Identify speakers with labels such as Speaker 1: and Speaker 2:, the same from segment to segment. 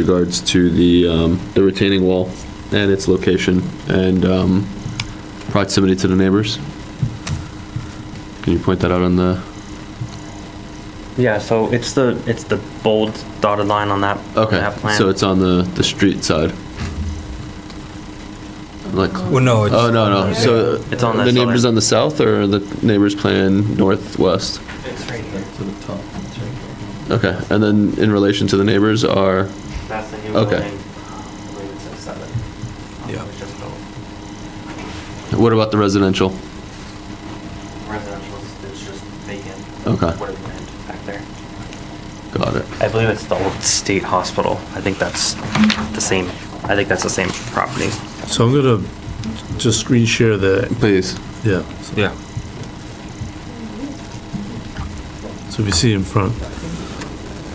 Speaker 1: regards to the, um, the retaining wall and its location and um, proximity to the neighbors. Can you point that out on the,
Speaker 2: Yeah, so it's the, it's the bold dotted line on that,
Speaker 1: okay,
Speaker 2: that plan.
Speaker 1: so it's on the, the street side? Like,
Speaker 3: Well, no, it's,
Speaker 1: oh, no, no, so
Speaker 2: It's on
Speaker 1: the
Speaker 2: that
Speaker 1: neighbors
Speaker 2: southern-
Speaker 1: on the south or the neighbors plan northwest?
Speaker 4: It's right here. To the top. It's right here.
Speaker 1: Okay, and then in relation to the neighbors are,
Speaker 4: That's the new
Speaker 1: Okay.
Speaker 4: building. um, I believe it's at seven. Um,
Speaker 3: Yeah.
Speaker 4: It was just built.
Speaker 1: what about the residential?
Speaker 4: Residential is is just vacant.
Speaker 1: Okay.
Speaker 4: What it meant back there.
Speaker 1: Got it.
Speaker 2: I believe it's the old state hospital. I think that's the same, I think that's the same property.
Speaker 5: So I'm gonna just screen share the,
Speaker 1: Please.
Speaker 5: yeah,
Speaker 3: yeah.
Speaker 5: so if you see in front.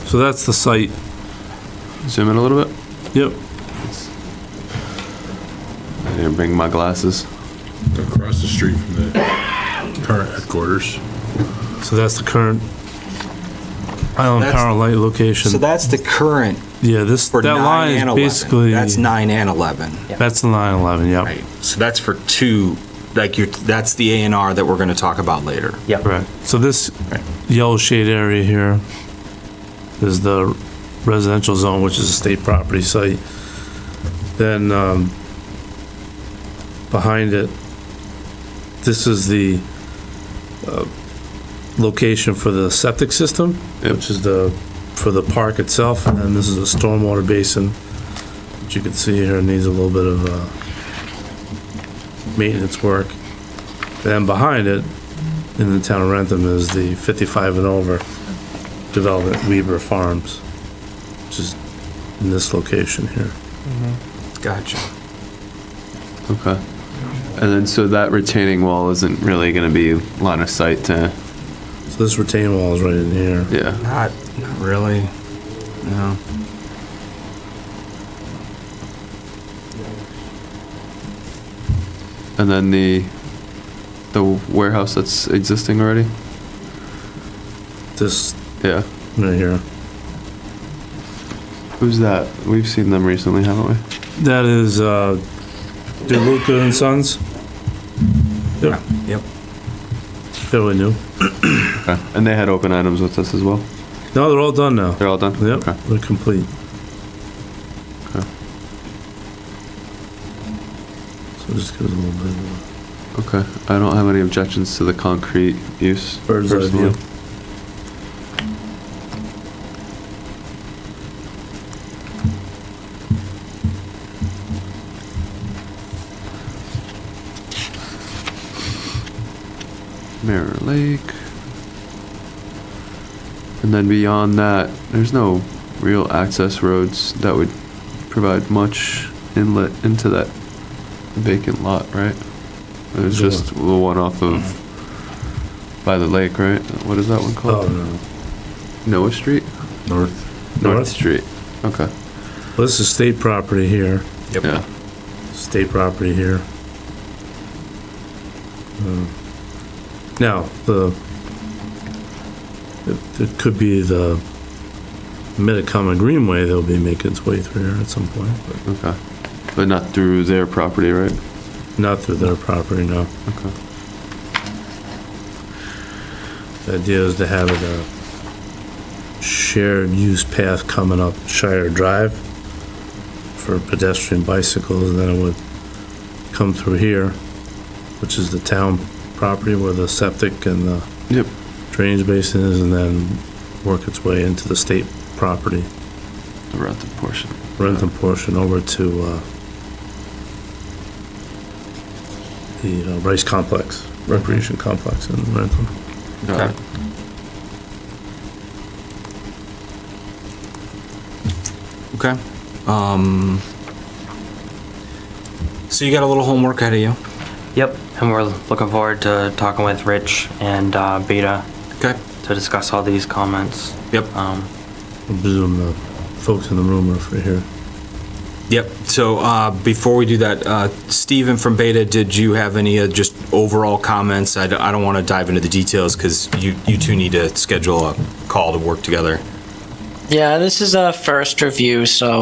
Speaker 5: So that's the site,
Speaker 1: Zoom in a little bit.
Speaker 5: yep,
Speaker 1: I didn't bring my glasses.
Speaker 6: across the street from the current headquarters.
Speaker 5: so that's the current Island
Speaker 7: That's-
Speaker 5: Power Light
Speaker 7: So
Speaker 5: location.
Speaker 7: that's the current
Speaker 5: Yeah, this,
Speaker 7: for
Speaker 5: that
Speaker 7: 9
Speaker 5: line
Speaker 7: and
Speaker 5: is
Speaker 7: 11.
Speaker 5: basically,
Speaker 7: That's 9 and 11.
Speaker 5: that's the line 11, yep,
Speaker 7: So that's for two, like you're, that's the A and R that we're going to talk about later.
Speaker 5: correct. So this yellow shade area here is the residential zone, which is a state property site. Then, um, behind it, this is the, uh, location for the septic system,
Speaker 1: Yep.
Speaker 5: which is the, for the park itself, and then this is the stormwater basin, which you can see here needs a little bit of, uh, maintenance work. Then behind it, in the town of Rentham, is the fifty-five and over development Weaver Farms, which is in this location here.
Speaker 7: Gotcha.
Speaker 1: Okay. And then, so that retaining wall isn't really going to be line of sight to,
Speaker 5: So this retaining wall is right in here.
Speaker 1: yeah.
Speaker 7: Not, not really. No.
Speaker 1: And then the, the warehouse that's existing already?
Speaker 5: This,
Speaker 1: Yeah.
Speaker 5: right here.
Speaker 1: Who's that? We've seen them recently, haven't we?
Speaker 5: That is, uh, DeLuca and Sons. They're
Speaker 7: Yep.
Speaker 5: fairly new.
Speaker 1: Okay. And they had open items with us as well?
Speaker 5: No, they're all done now.
Speaker 1: They're all done?
Speaker 5: Yep,
Speaker 1: Okay.
Speaker 5: they're complete.
Speaker 1: Okay.
Speaker 5: So just gives a little bit of
Speaker 1: Okay. I don't have any objections to the concrete use.
Speaker 5: a bird's eye
Speaker 1: personally.
Speaker 5: view.
Speaker 1: Mirror Lake. And then beyond that, there's no real access roads that would provide much inlet into that vacant lot, right? There's
Speaker 5: The
Speaker 1: just the one off of by the lake, right? What is that one
Speaker 5: Oh,
Speaker 1: called?
Speaker 5: no.
Speaker 1: Noah Street?
Speaker 6: North.
Speaker 5: North.
Speaker 1: Street. Okay.
Speaker 5: Well, This is state property here,
Speaker 7: Yep.
Speaker 1: Yeah.
Speaker 5: state property here. Um, Now, the, it- it could be the Metacomet Greenway that'll be making its way through here at some point, but
Speaker 1: Okay. But not through their property, right?
Speaker 5: not through their property, no.
Speaker 1: Okay.
Speaker 5: The idea is to have it a shared use path coming up Shire Drive for pedestrian bicycles, and then it would come through here, which is the town property where the septic and the
Speaker 1: Yep.
Speaker 5: drainage basin is, and then work its way into the state property,
Speaker 1: The Rentham portion.
Speaker 5: Rentham portion over to, uh, the uh, Rice Complex, Recreation Complex in Rentham.
Speaker 1: Got it.
Speaker 7: Okay. Um, so you got a little homework ahead of you.
Speaker 2: Yep, and we're looking forward to talking with Rich and uh, Beta
Speaker 7: Okay.
Speaker 2: to discuss all these comments.
Speaker 7: Yep.
Speaker 2: Um,
Speaker 5: I presume the folks in the room are for here.
Speaker 7: Yep. So uh, before we do that, uh, Steven from Beta, did you have any uh, just overall comments? I d- I don't want to dive into the details because you, you two need to schedule a call to work together.
Speaker 8: Yeah, this is a first review, so